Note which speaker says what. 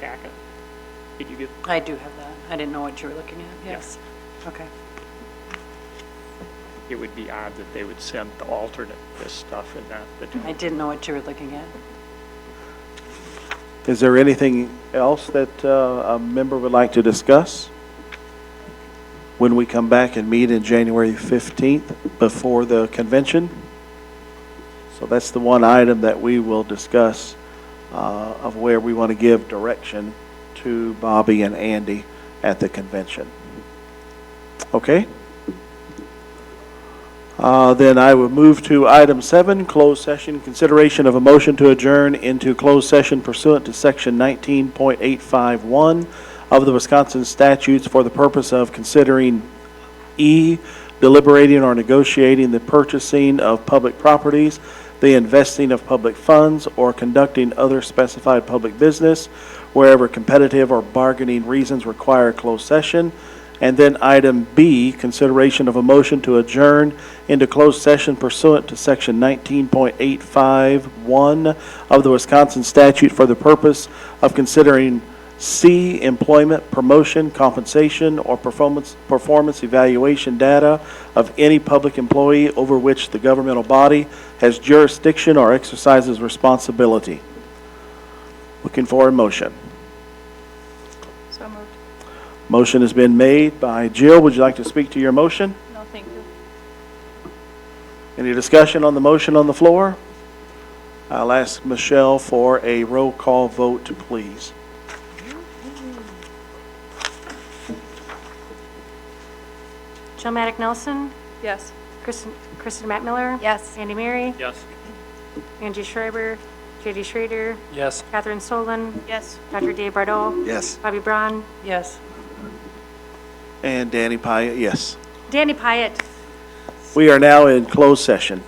Speaker 1: packet. Did you get,
Speaker 2: I do have that. I didn't know what you were looking at.
Speaker 1: Yeah.
Speaker 2: Yes. Okay.
Speaker 1: it would be odd that they would send the alternate this stuff and not the
Speaker 2: I didn't know what you were looking at.
Speaker 3: Is there anything else that uh, a member would like to discuss? When we come back and meet in January 15th before the convention? So that's the one item that we will discuss uh, of where we want to give direction to Bobby and Andy at the convention. Okay? Uh, Then I will move to item seven, closed session, consideration of a motion to adjourn into closed session pursuant to section 19.851 of the Wisconsin statutes for the purpose of considering E, deliberating or negotiating the purchasing of public properties, the investing of public funds, or conducting other specified public business wherever competitive or bargaining reasons require closed session. And then item B, consideration of a motion to adjourn into closed session pursuant to section 19.851 of the Wisconsin statute for the purpose of considering C, employment, promotion, compensation, or performance, performance evaluation data of any public employee over which the governmental body has jurisdiction or exercises responsibility. Looking for a motion.
Speaker 4: So moved.
Speaker 3: Motion has been made by Jill. Would you like to speak to your motion?
Speaker 4: No, thank you.
Speaker 3: Any discussion on the motion on the floor? I'll ask Michelle for a roll call vote, please.
Speaker 5: Jill Maddick Nelson,
Speaker 4: Yes.
Speaker 5: Kristen, Kristen Matt Miller.
Speaker 4: Yes.
Speaker 5: Andy Mary,
Speaker 1: Yes.
Speaker 5: Angie Schreiber, JD Schrader,
Speaker 1: Yes.
Speaker 5: Catherine Solon,
Speaker 4: Yes.
Speaker 5: Dr. Dave Bardot,
Speaker 6: Yes.
Speaker 5: Bobby Braun,
Speaker 2: Yes.
Speaker 3: And Danny Pyatt, yes.
Speaker 5: Danny Pyatt.
Speaker 3: We are now in closed session.